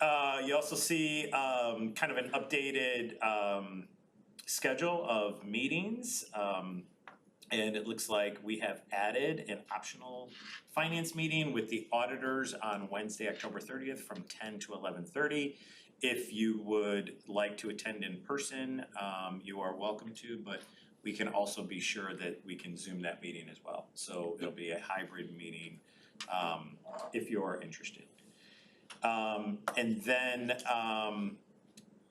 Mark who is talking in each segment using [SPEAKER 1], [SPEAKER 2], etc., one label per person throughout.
[SPEAKER 1] Uh, you also see, um, kind of an updated, um, schedule of meetings. Um, and it looks like we have added an optional finance meeting with the auditors on Wednesday, October thirtieth, from ten to eleven thirty. If you would like to attend in person, um, you are welcome to, but we can also be sure that we can Zoom that meeting as well. So it'll be a hybrid meeting, um, if you're interested. Um, and then, um,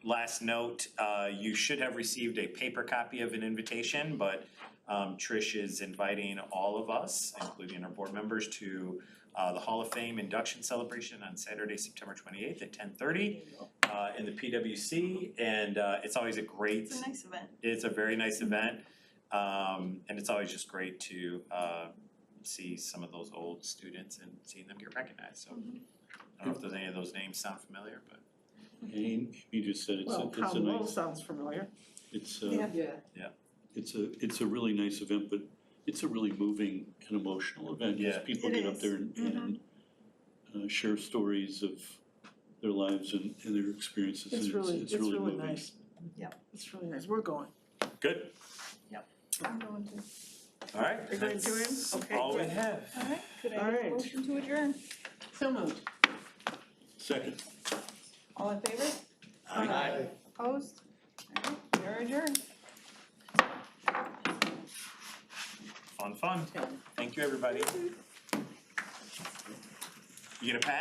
[SPEAKER 1] last note, uh, you should have received a paper copy of an invitation, but um, Trish is inviting all of us, including our board members, to uh, the Hall of Fame induction celebration on Saturday, September twenty-eighth at ten thirty uh, in the PWC. And uh, it's always a great,
[SPEAKER 2] It's a nice event.
[SPEAKER 1] it's a very nice event. Um, and it's always just great to uh, see some of those old students and seeing them get recognized. So
[SPEAKER 2] Mhm.
[SPEAKER 1] I don't know if those, any of those names sound familiar, but
[SPEAKER 3] Amy Amy just said it's, a-
[SPEAKER 4] Well,
[SPEAKER 3] it's a
[SPEAKER 4] Crown Royal
[SPEAKER 3] nice,
[SPEAKER 4] sounds familiar.
[SPEAKER 3] it's
[SPEAKER 2] Yeah.
[SPEAKER 3] a,
[SPEAKER 4] Yeah.
[SPEAKER 3] it's a, it's a really nice event, but it's a really moving and emotional event. 'cause
[SPEAKER 1] Yeah.
[SPEAKER 3] People
[SPEAKER 2] It
[SPEAKER 3] get up
[SPEAKER 2] is.
[SPEAKER 3] there and,
[SPEAKER 4] Mm-hmm.
[SPEAKER 3] and uh, share stories of their lives and, and their experiences. and
[SPEAKER 4] It's really, it's really
[SPEAKER 3] moving.
[SPEAKER 4] nice.
[SPEAKER 2] Yep.
[SPEAKER 4] It's really nice, we're going.
[SPEAKER 1] good.
[SPEAKER 2] I'm going to.
[SPEAKER 1] All right.
[SPEAKER 4] You're going to him?
[SPEAKER 1] that's
[SPEAKER 4] Okay,
[SPEAKER 1] All we
[SPEAKER 4] good.
[SPEAKER 1] have.
[SPEAKER 2] Alright, could I
[SPEAKER 4] All
[SPEAKER 2] have a
[SPEAKER 4] right.
[SPEAKER 2] motion to adjourn?
[SPEAKER 4] So moved.
[SPEAKER 3] Second.
[SPEAKER 2] All in favor?
[SPEAKER 3] Aye.
[SPEAKER 2] Opposed? Alright, you're adjourned.
[SPEAKER 1] Fun, fun. Thank you, everybody. You gonna pass?